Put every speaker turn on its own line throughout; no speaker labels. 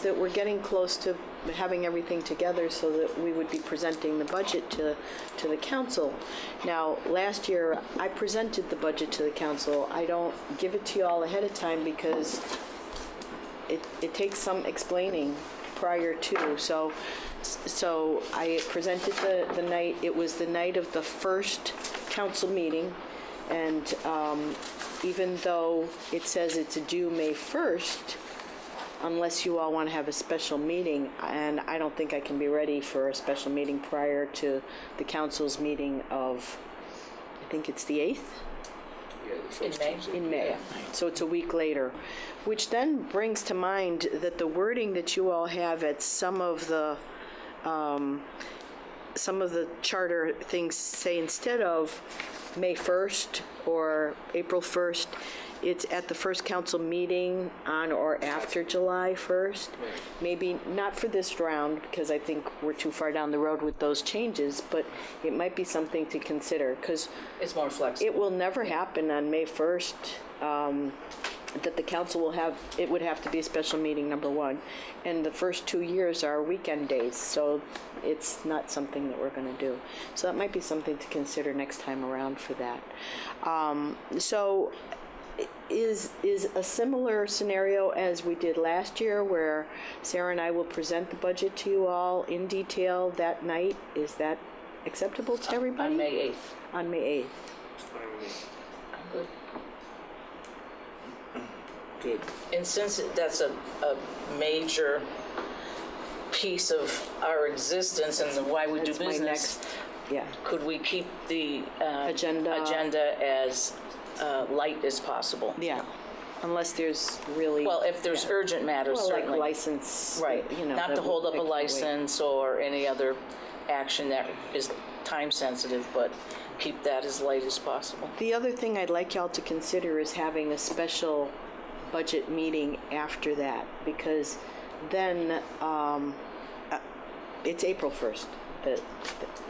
that we're getting close to having everything together so that we would be presenting the budget to, to the council. Now, last year, I presented the budget to the council. I don't give it to you all ahead of time because it, it takes some explaining prior to, so, so I presented the, the night, it was the night of the first council meeting, and um, even though it says it's due May 1st, unless you all want to have a special meeting, and I don't think I can be ready for a special meeting prior to the council's meeting of, I think it's the 8th?
In May?
in May. So it's a week later, which then brings to mind that the wording that you all have at some of the, um, some of the charter things say instead of May 1st or April 1st, it's at the first council meeting on or after July 1st. Maybe not for this round, because I think we're too far down the road with those changes, but it might be something to consider, because
It's more
it
flexible.
will never happen on May 1st, um, that the council will have, it would have to be a special meeting, number one. And the first two years are weekend days, so it's not something that we're going to do. So that might be something to consider next time around for that. Um, So is, is a similar scenario as we did last year, where Sarah and I will present the budget to you all in detail that night? Is that acceptable to everybody?
On May 8th.
On May 8th?
Good.
And since that's a, a major piece of our existence and the why we do
That's my
business,
next, yeah.
could we keep the uh,
Agenda.
agenda as uh, light as possible?
Yeah, unless there's really.
Well, if there's urgent matters,
Well, like
certainly.
license.
Right,
you know,
not to
that
hold
would-
up a
that can wait.
license or any other action that is time-sensitive, but keep that as light as possible.
The other thing I'd like y'all to consider is having a special budget meeting after that, because then um, uh, it's April 1st that,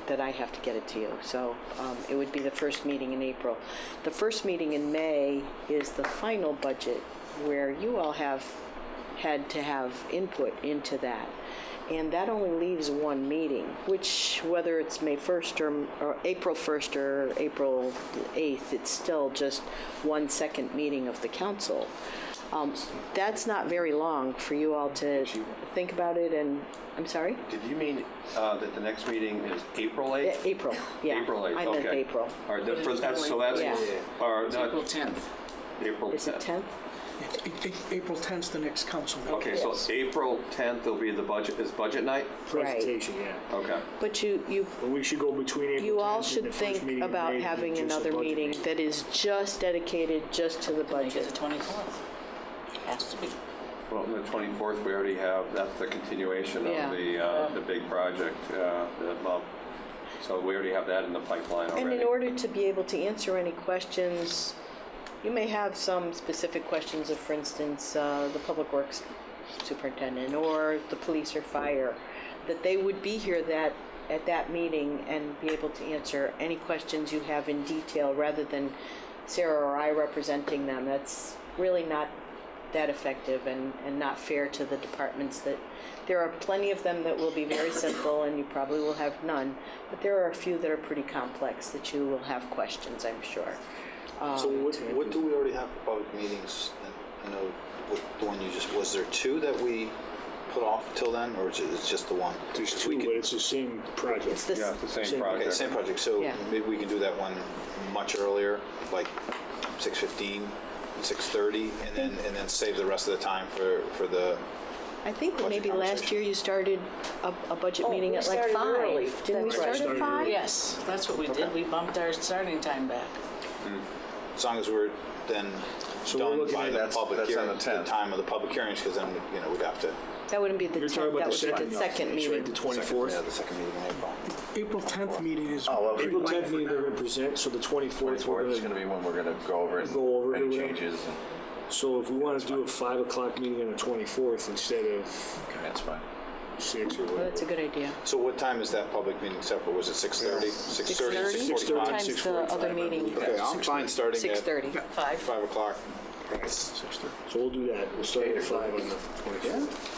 that I have to get it to you. So um, it would be the first meeting in April. The first meeting in May is the final budget, where you all have had to have input into that. And that only leaves one meeting, which, whether it's May 1st or, or April 1st or April 8th, it's still just one second meeting of the council. Um, That's not very long for you all to think about it and, I'm sorry?
Did you mean uh, that the next meeting is April 8th?
Yeah, April, yeah.
April 8th,
I
okay.
meant April.
All right, that- for- that's- so that's,
Yeah.
or not,
April 10th.
April 10th.
Is it 10th?
A- A- April 10th, the next council meeting.
Okay, so April 10th will be the budget, is budget night?
Right.
Presentation, yeah.
Okay.
But you, you
But we should go between April
You all
10th and
should
the first meeting
think
in
about
May,
having
just a
another
budget
meeting that is just dedicated just to the
Make it
budget.
the 24th. Has to be.
Well, the 24th, we already have, that's the continuation
Yeah.
of the, uh, the big project, uh, the bump. So we already have that in the pipeline already.
And in order to be able to answer any questions, you may have some specific questions of, for instance, uh, the public works superintendent or the police or fire, that they would be here that, at that meeting and be able to answer any questions you have in detail rather than Sarah or I representing them. That's really not that effective and, and not fair to the departments that, there are plenty of them that will be very simple and you probably will have none, but there are a few that are pretty complex that you will have questions, I'm sure.
So what, what do we already have for public meetings? And I know what, the one you just, was there two that we put off till then, or is it it's just the one?
There's
If we
two,
could-
but it's the same
It's
project.
this-
Yeah, it's the same
Same-
Okay,
project.
same project, so
Yeah.
maybe we can do that one much earlier, like six fifteen, six thirty, and then, and then save the rest of the time for, for the,
I think
Budget
maybe last
conversation.
year you started a, a budget
Oh,
meeting
we
at like
started early.
five. Didn't we
That's right.
start at
Started
five?
early.
Yes, that's what we did. We bumped our starting time back.
as long as we're then
we're
done
looking
by
at-
the
that's-
public
that's on
hearing,
the 10th.
the time of the public hearings, because then, you know, we'd have to.
That wouldn't be the
You're talking
tenth,
about
that
the
would be
second.
the second
It's right,
meeting.
The
Yeah,
24th.
the second meeting in April.
April 10th meeting is.
Oh, okay.
April 10th meeting they're going to present, so the 24th, we're
24th
going
is
to
going to be when we're going to go over and
Go over
any
it, yeah.
changes. and-
So if we want to do a five o'clock meeting on the twenty-fourth instead of
That's fine.
six or
Well, That's a
whatever.
good idea.
So what time is that public meeting set for? Was it six thirty? Six thirty, six
6:30?
forty-five?
Times the other meeting,
Okay, I'm fine starting
six
at
thirty.
Five.
five o'clock.
So we'll do that, we'll start at five on the twenty-fourth.